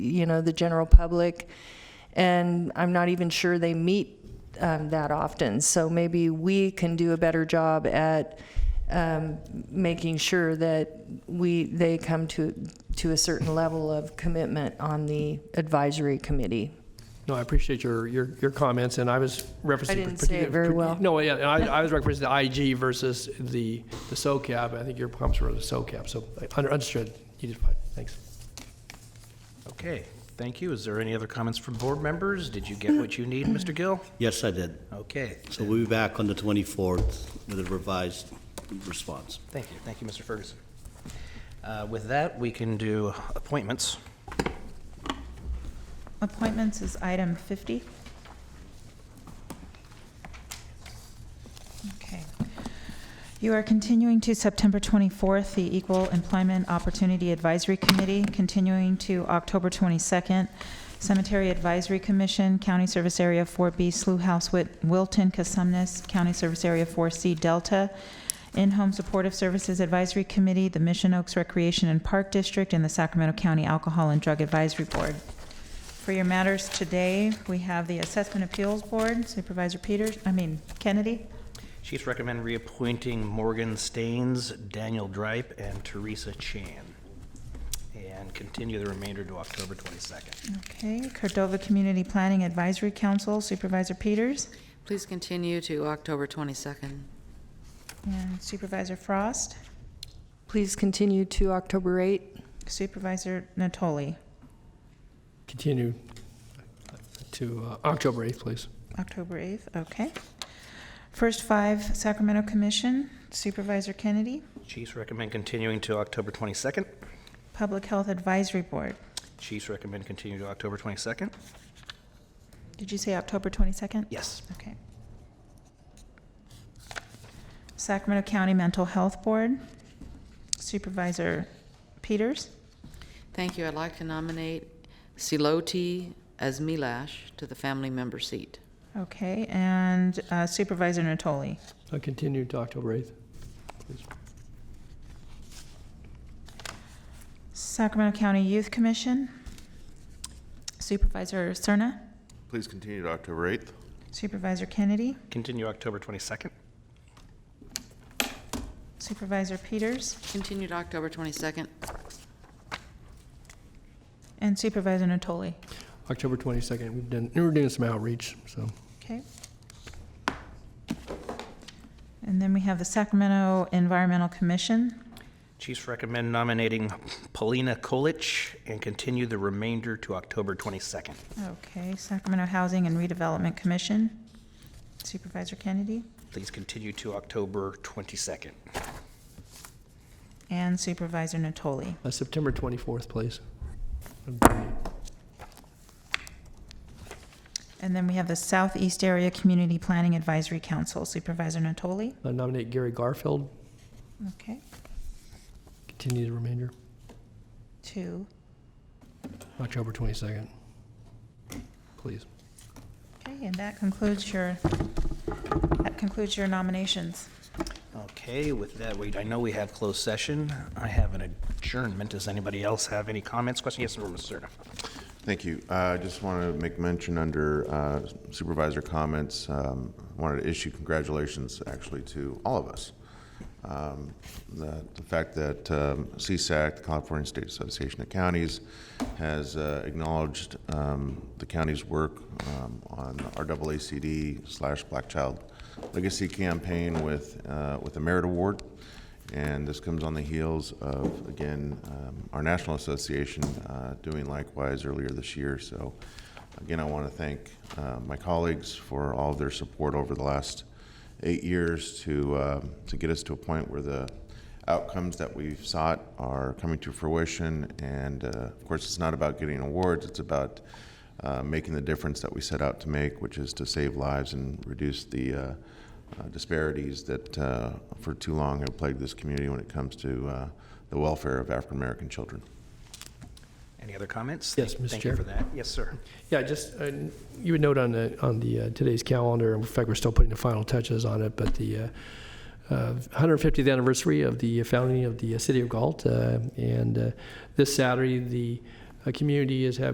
you know, the general public. And I'm not even sure they meet um, that often. So maybe we can do a better job at um, making sure that we, they come to, to a certain level of commitment on the advisory committee. No, I appreciate your, your, your comments, and I was referencing. I didn't say it very well. No, yeah, and I, I was referencing the IG versus the, the SOCAP. I think your comments were the SOCAP, so I under- understood. You did fine. Thanks. Okay, thank you. Is there any other comments from board members? Did you get what you need, Mr. Gill? Yes, I did. Okay, So we'll be back on the 24th with a revised response. thank you, thank you, Mr. Ferguson. Uh, With that, we can do appointments. Appointments is item 50. Okay. You are continuing to September 24th, the Equal Employment Opportunity Advisory Committee, continuing to October 22nd, Cemetery Advisory Commission, County Service Area 4B, Slough House, Wit- Wilton, Casumnes, County Service Area 4C, Delta, In-Home Supportive Services Advisory Committee, the Mission Oaks Recreation and Park District, and the Sacramento County Alcohol and Drug Advisory Board. For your matters today, we have the Assessment Appeals Board, Supervisor Peters, I mean Kennedy. Chiefs recommend reappointing Morgan Staines, Daniel Dripe, and Teresa Chan, and continue the remainder to October 22nd. Okay, Cordova Community Planning Advisory Council, Supervisor Peters Please continue to October 22nd. and Supervisor Frost, Please continue to October 8th. Supervisor Natoli, Continue to uh, October 8th, please. October 8th, okay. First Five Sacramento Commission, Supervisor Kennedy, Chiefs recommend continuing to October 22nd. Public Health Advisory Board. Chiefs recommend continue to October 22nd. Did you say October 22nd? Yes. Okay. Sacramento County Mental Health Board, Supervisor Peters. Thank you. I'd like to nominate Siloti Asmilash to the family member seat. Okay, and uh, Supervisor Natoli. Uh, Continue to October 8th, please. Sacramento County Youth Commission, Supervisor Cerna, Please continue to October 8th. Supervisor Kennedy, Continue October 22nd. Supervisor Peters, Continue to October 22nd. and Supervisor Natoli. October 22nd, we've done, we're doing some outreach, so. Okay. And then we have the Sacramento Environmental Commission, Chiefs recommend nominating Paulina Kolich and continue the remainder to October 22nd. Okay, Sacramento Housing and Redevelopment Commission, Supervisor Kennedy Please continue to October 22nd. and Supervisor Natoli. Uh, September 24th, please. And then we have the Southeast Area Community Planning Advisory Council, Supervisor Natoli. I Uh, Nominate Gary Garfield, Okay, continue the remainder, two. October 22nd, please. Okay, and that concludes your, that concludes your nominations. Okay, with that, we, I know we have closed session. I have an adjournment. Does anybody else have any comments, questions? Yes, Mr. Serna. Thank you. Uh, I just want to make mention under uh, supervisor comments, um, I wanted to issue congratulations actually to all of us. Um, The the fact that um, CSAC, the California State Association of Counties, has uh, acknowledged um, the county's work um, on RAACD slash Black Child Legacy Campaign with, uh, with a merit award. And this comes on the heels of, again, um, our National Association uh, doing likewise earlier this year. So again, I want to thank uh, my colleagues for all of their support over the last eight years to, uh, to get us to a point where the outcomes that we've sought are coming to fruition. And uh, of course, it's not about getting awards, it's about uh, making the difference that we set out to make, which is to save lives and reduce the uh, uh, disparities that uh, for too long have plagued this community when it comes to uh, the welfare of African American children. Any other comments? Yes, Thank- Mr. Thank you for Chair. that. Yes, sir. Yeah, just, uh, you would note on the, on the, uh, today's calendar, in fact, we're still putting the final touches on it, but the uh, uh, 150th anniversary of the founding of the uh, city of Galt, uh, and uh, this Saturday, the uh, community is having